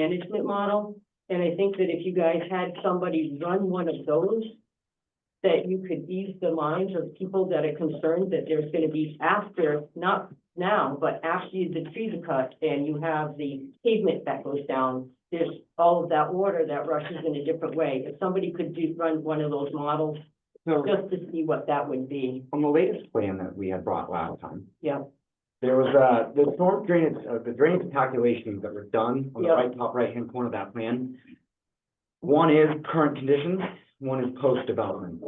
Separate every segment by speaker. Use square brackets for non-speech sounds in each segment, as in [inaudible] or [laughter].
Speaker 1: management model. And I think that if you guys had somebody run one of those, that you could ease the minds of people that are concerned that there's gonna be after, not now, but after you- the trees are cut and you have the pavement that goes down, there's all of that water that rushes in a different way. If somebody could do, run one of those models,
Speaker 2: So
Speaker 1: just to see what that would be,
Speaker 2: on the latest plan that we had brought last time.
Speaker 1: Yeah.
Speaker 2: There was, uh, the storm drainage, uh, the drainage calculations that were done on the
Speaker 1: Yeah.
Speaker 2: right, top right-hand corner of that plan. One is current conditions, one is post-development.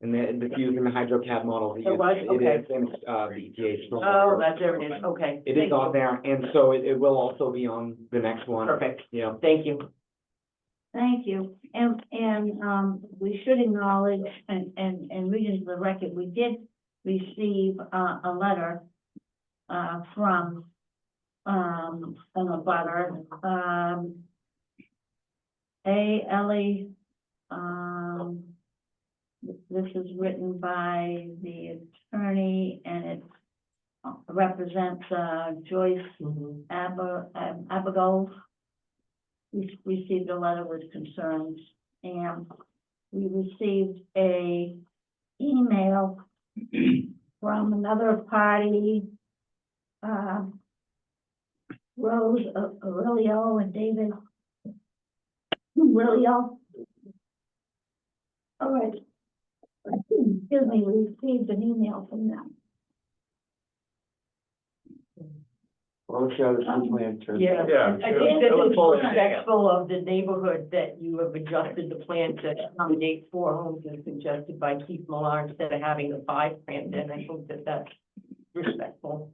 Speaker 2: And then the fuse and the hydrocad model.
Speaker 1: It was?
Speaker 2: It is, in, uh, the ETA. storm-
Speaker 1: oh, that's there it is, okay.
Speaker 2: It
Speaker 1: Thank
Speaker 2: is
Speaker 1: you.
Speaker 2: on there, and so it, it will also be on the next one.
Speaker 1: Perfect,
Speaker 2: Yeah.
Speaker 1: thank you.
Speaker 3: Thank you. And, and, um, we should acknowledge and, and, and read into the record, we did receive, uh, a letter, uh, from, um, from a butter, um, A. Ellie, um, this is written by the attorney and it represents, uh, Joyce
Speaker 1: Mhm.
Speaker 3: Aber, um, Abigail. We received a letter with concerns and we received a email [clears throat] from another party. uh, Rose A- Aurelio and David. Aurelio. All right. Excuse me, we received an email from them.
Speaker 2: Well, let's show this one plan to.
Speaker 1: Yeah.
Speaker 4: Yeah.
Speaker 1: I think this is respectful of the neighborhood that you have adjusted the plan to accommodate four homes as suggested by Keith Millar instead of having the five planned in. I think that that's respectful.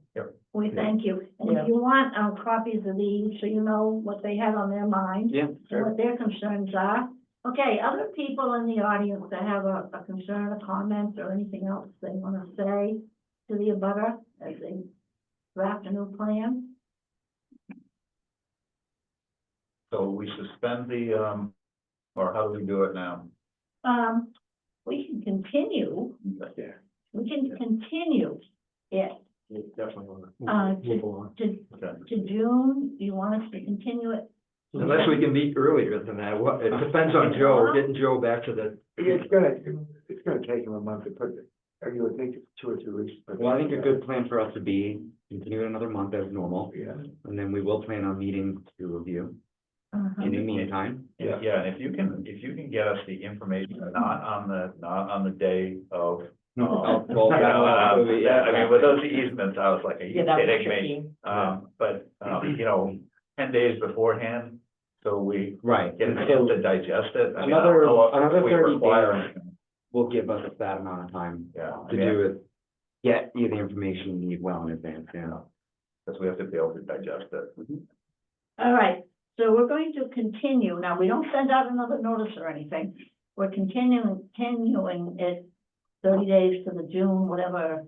Speaker 3: We
Speaker 2: Yeah.
Speaker 3: thank you. And
Speaker 1: Yeah.
Speaker 3: if you want, uh, copies of these, so you know what they have on their mind,
Speaker 2: Yeah,
Speaker 3: and what their concerns are. Okay, other people in the audience that have a, a concern, a comment, or anything else they wanna say to the abutter as they draft a new plan?
Speaker 4: So we suspend the, um, or how do we do it now?
Speaker 3: Um, we can continue,
Speaker 4: Yeah.
Speaker 3: we can continue it
Speaker 4: Definitely. wanna-
Speaker 3: Uh, to- move
Speaker 2: on.
Speaker 3: to,
Speaker 4: Okay.
Speaker 3: to June. You want us to continue it?
Speaker 5: Unless we can meet earlier than that, What- it depends on Joe, getting Joe back to the,
Speaker 6: It's gonna, it's gonna take him a month to put it, I mean, it would take two or three weeks. but-
Speaker 2: Well, I think a good plan for us to be, continue it another month as normal,
Speaker 6: Yeah,
Speaker 2: and then we will plan on meeting to review
Speaker 3: Uh-huh.
Speaker 2: in the meantime.
Speaker 4: Yeah, yeah, and if you can, if you can get us the information, not on the, not on the day of. um,
Speaker 2: Well,
Speaker 4: you know,
Speaker 2: that-
Speaker 4: um, that- I mean, with those easements, I was like, are you
Speaker 1: Yeah, that was
Speaker 4: kidding me?
Speaker 1: tricky.
Speaker 4: Um, but, um, you know, ten days beforehand, so we
Speaker 2: Right,
Speaker 4: get
Speaker 2: and
Speaker 4: a chance
Speaker 2: so
Speaker 4: to digest it. I mean, I don't
Speaker 2: Another-
Speaker 4: know if
Speaker 2: another
Speaker 4: we
Speaker 2: 30
Speaker 4: require
Speaker 2: days.
Speaker 4: anything.
Speaker 2: will give us that amount of time
Speaker 4: Yeah. I
Speaker 2: to
Speaker 4: mean,
Speaker 2: do it, get you the information you need well in advance, yeah.
Speaker 4: Because we have to be able to digest it.
Speaker 2: Mm-hmm.
Speaker 3: All right, so we're going to continue. Now, we don't send out another notice or anything. We're continuing, continuing it thirty days to the June, whatever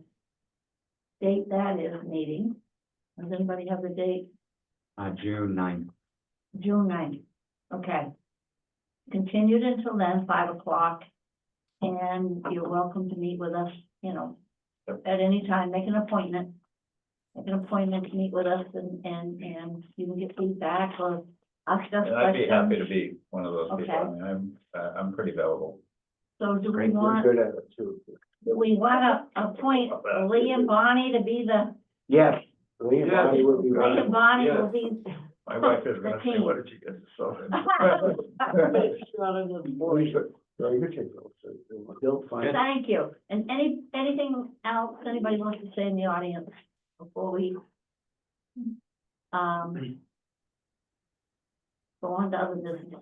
Speaker 3: date that is meeting. Does anybody have the date?
Speaker 2: Uh, June ninth,
Speaker 3: June ninth. Okay. Continued until then, five o'clock. And you're welcome to meet with us, you know,
Speaker 4: Yep.
Speaker 3: at any time, make an appointment. Make an appointment to meet with us and, and, and you can get feedback or ask us
Speaker 4: And I'd be happy to
Speaker 3: questions.
Speaker 4: be one of those people. I
Speaker 3: Okay.
Speaker 4: mean, I'm, uh, I'm pretty available.
Speaker 3: So do we
Speaker 2: Great,
Speaker 6: we're
Speaker 3: want,
Speaker 6: good at it too.
Speaker 3: do we want to appoint Lee and Bonnie to be the,
Speaker 6: Yes. Lee and Bonnie would be
Speaker 3: Lee
Speaker 6: running.
Speaker 3: and Bonnie will be.
Speaker 4: My wife is gonna say,
Speaker 3: Thirteen.
Speaker 4: what did you get [laughs] yourself into?
Speaker 6: We should- Very good. Jim. So, They'll find,
Speaker 3: Thank you. And any, anything else anybody wants to say in the audience before we, um, go on to other business?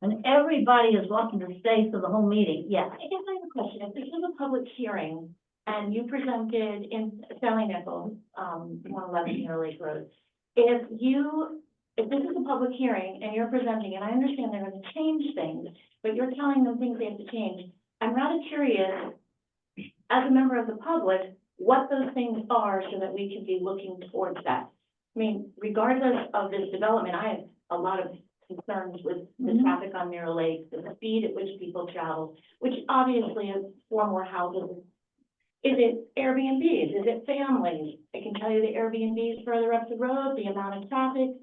Speaker 3: And everybody is welcome to stay for the whole meeting, yes.
Speaker 7: I guess I have a question. If this is a public hearing and you presented in Sally Nichols, um, one eleven Near Lake Road. If you, if this is a public hearing and you're presenting, and I understand they're gonna change things, but you're telling them things they have to change. I'm rather curious, as a member of the public, what those things are so that we can be looking towards that. I mean, regardless of this development, I have a lot of concerns with the
Speaker 3: Mhm.
Speaker 7: traffic on Mirror Lake, the speed at which people travel which obviously is four more houses. Is it Airbnbs? Is it families? I can tell you the Airbnbs further up the road, the amount of traffic,